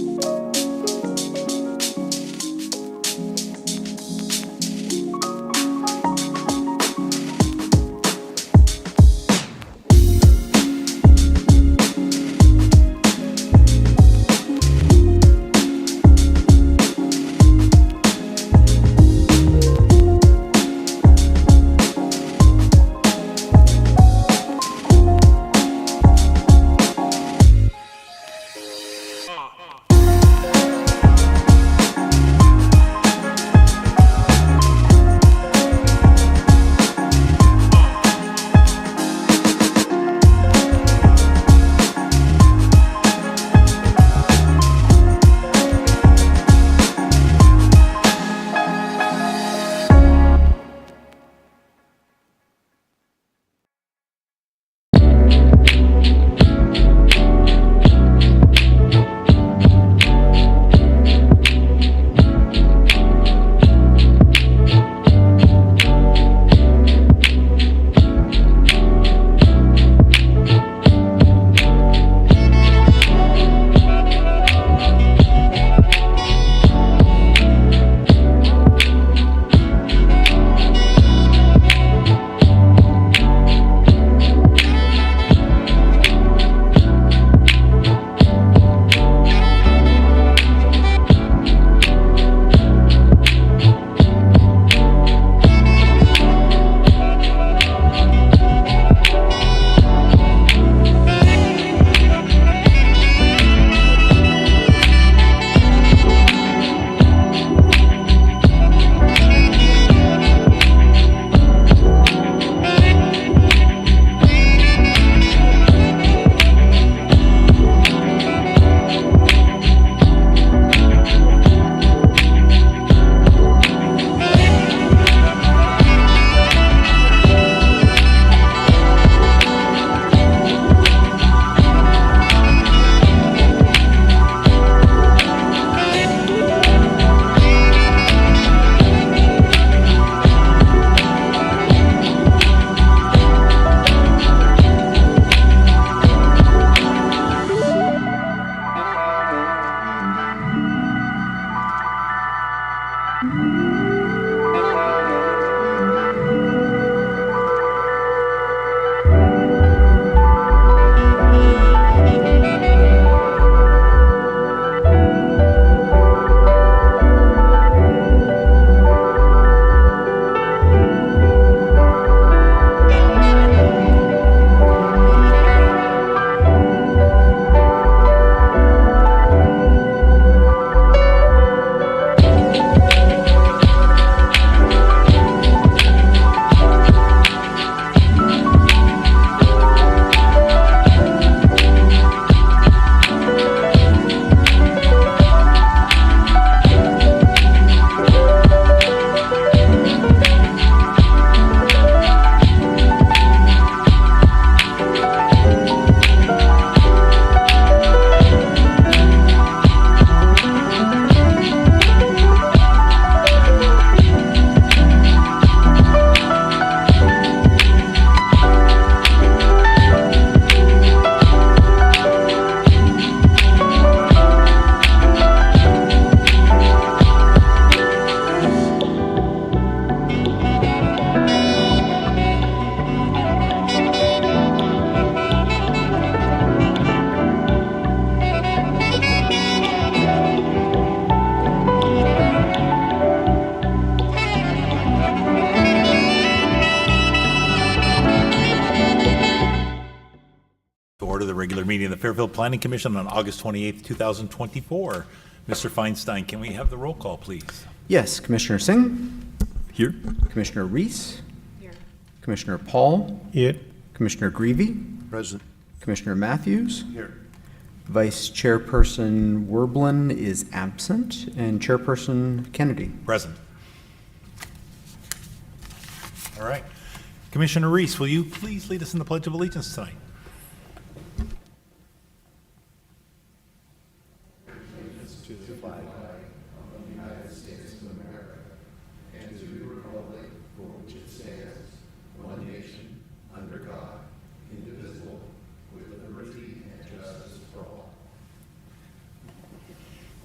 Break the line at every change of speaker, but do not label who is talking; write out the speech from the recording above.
To order the regular meeting of the Fairfield Planning Commission on August 28th, 2024. Mr. Feinstein, can we have the roll call, please?
Yes, Commissioner Singh,
Here.
Commissioner Reese. Commissioner Paul.
Here.
Commissioner Greavy.
Present.
Commissioner Matthews.
Here.
Vice Chairperson Werblin is absent, and Chairperson Kennedy.
Present. All right. Commissioner Reese, will you please lead us in the Pledge of Allegiance tonight?
and to the republic for which it stands, one nation, under God,